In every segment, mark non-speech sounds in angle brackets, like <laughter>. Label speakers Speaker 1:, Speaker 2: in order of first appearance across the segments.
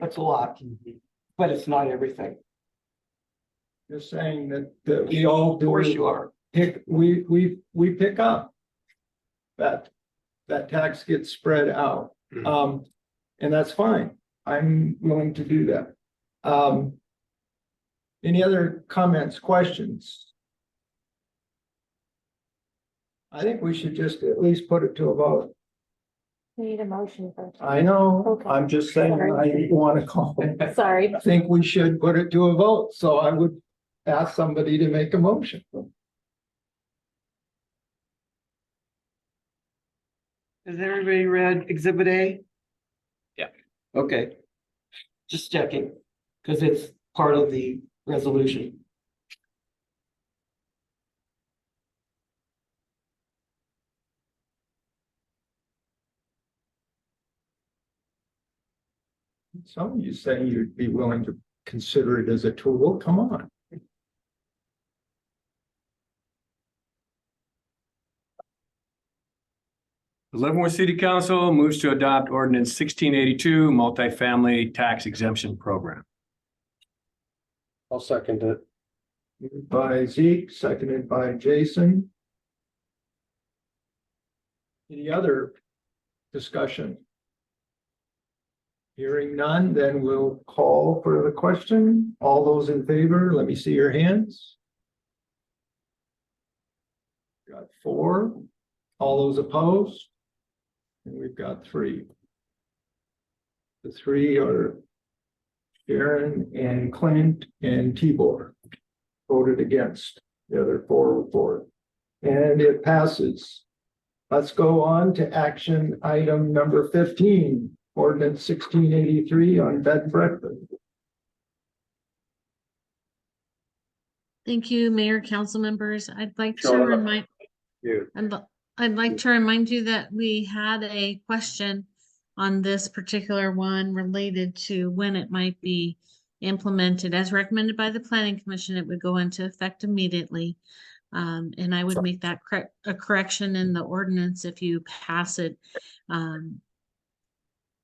Speaker 1: it's a lot, but it's not everything.
Speaker 2: You're saying that, that we all
Speaker 1: Of course
Speaker 2: do
Speaker 1: you are.
Speaker 2: pick, we, we, we pick up. That, that tax gets spread out,
Speaker 3: Mhm.
Speaker 2: um, and that's fine. I'm willing to do that. Um. Any other comments, questions? I think we should just at least put it to a vote.
Speaker 4: We Need a motion first.
Speaker 2: I know,
Speaker 4: Okay.
Speaker 2: I'm just saying, I
Speaker 1: <laughs>
Speaker 2: wanna call.
Speaker 4: Sorry,
Speaker 2: I think we should put it to a vote, so I would ask somebody to make a motion.
Speaker 5: Has everybody read exhibit A?
Speaker 1: Okay. Just checking, because it's part of the resolution.
Speaker 2: Some of you say you'd be willing to consider it as a tool, come on.
Speaker 3: The Leavenworth City Council moves to adopt ordinance sixteen eighty-two, multifamily tax exemption program.
Speaker 6: I'll second it.
Speaker 2: Moved By Zeke, seconded by Jason. Any other discussion? Hearing none, then we'll call for the question. All those in favor, let me see your hands. Got four. All those opposed? And we've got three. The three are Sharon and Clint and Tibor voted against, the other four were for it. And it passes. Let's go on to action item number fifteen, ordinance sixteen eighty-three on bed and breakfast.
Speaker 7: Thank you, Mayor, council members. I'd like to
Speaker 6: Sure.
Speaker 7: remind,
Speaker 6: You.
Speaker 7: I'd, li- I'd like to remind you that we had a question on this particular one related to when it might be implemented. As recommended by the planning commission, it would go into effect immediately. Um, and I would make that correct, a correction in the ordinance if you pass it, um,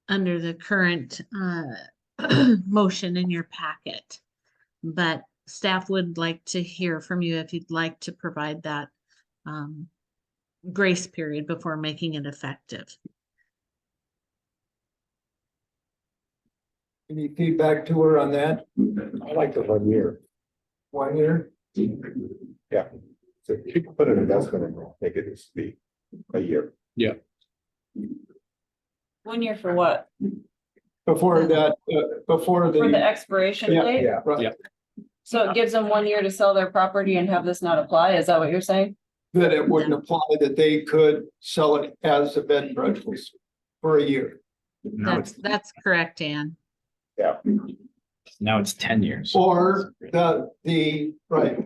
Speaker 7: under the current, uh, <clears throat> motion in your packet. But staff would like to hear from you if you'd like to provide that um, grace period before making it effective.
Speaker 2: Any feedback to her on that?
Speaker 6: I like the one year.
Speaker 2: One year?
Speaker 6: Yeah. So you can put an investment in, there, make it just be a year.
Speaker 8: One year for what?
Speaker 2: Before that, uh, before
Speaker 8: For the
Speaker 2: the.
Speaker 8: expiration
Speaker 2: Yeah,
Speaker 8: date?
Speaker 2: yeah, right.
Speaker 3: Yeah.
Speaker 8: So it gives them one year to sell their property and have this not apply? Is that what you're saying?
Speaker 2: That it wouldn't apply, that they could sell it as a bed and breakfast for a year.
Speaker 7: That's, that's correct, Ann.
Speaker 9: Now it's ten years.
Speaker 2: Or the, the, right.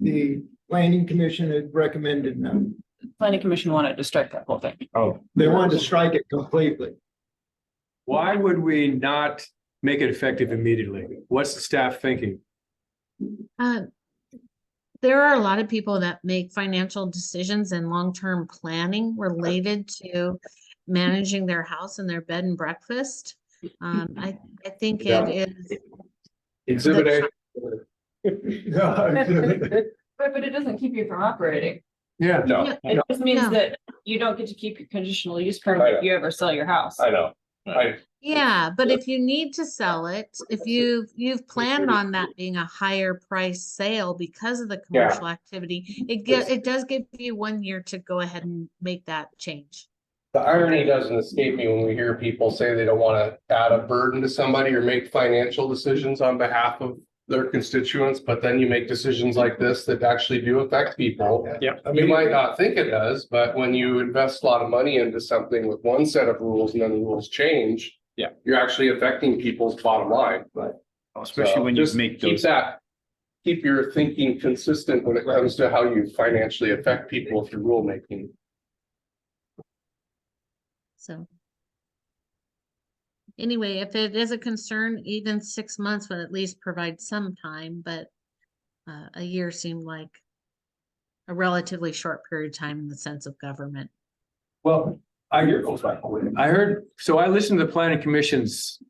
Speaker 2: The planning commission had recommended none.
Speaker 8: Planning commission wanted to strike that whole <laughs> thing.
Speaker 9: Oh.
Speaker 2: They wanted to strike it completely.
Speaker 3: Why would we not make it effective immediately? What's the staff thinking?
Speaker 7: Uh, There are a lot of people that make financial decisions and long-term planning related to managing their house and their bed and breakfast. Um, I, I think
Speaker 6: Yeah.
Speaker 7: it is,
Speaker 3: Exhibit A,
Speaker 2: <laughs> Yeah.
Speaker 8: But, but it doesn't keep you from operating.
Speaker 3: yeah.
Speaker 6: No,
Speaker 8: It just means
Speaker 7: No.
Speaker 8: that you you don't get to keep your conditional use permit if you ever sell your house.
Speaker 6: I know. I,
Speaker 7: yeah, but if you need to sell it, if you've, you've planned on that being a higher price sale because of the
Speaker 6: Yeah.
Speaker 7: commercial activity, it get, it does give you one year to go ahead and make that change.
Speaker 10: The irony doesn't escape me when we hear people say they don't want to add a burden to somebody or make financial decisions on behalf of their constituents, but then you make decisions like this that actually do affect people.
Speaker 3: Yep.
Speaker 10: You might not think it does, but when you invest a lot of money into something with one set of rules and then the rules change.
Speaker 3: Yeah.
Speaker 10: You're actually affecting people's bottom line.
Speaker 9: Especially
Speaker 10: So
Speaker 9: when you
Speaker 10: just
Speaker 9: make
Speaker 10: Keep
Speaker 9: those,
Speaker 10: that, keep your thinking consistent when it comes to how you financially affect people through rulemaking.
Speaker 7: So. Anyway, if it is a concern, even six months would at least provide some time, but uh, a year seemed like a relatively short period of time in the sense of government.
Speaker 3: Well, I hear, I heard, so I listened to the planning commission's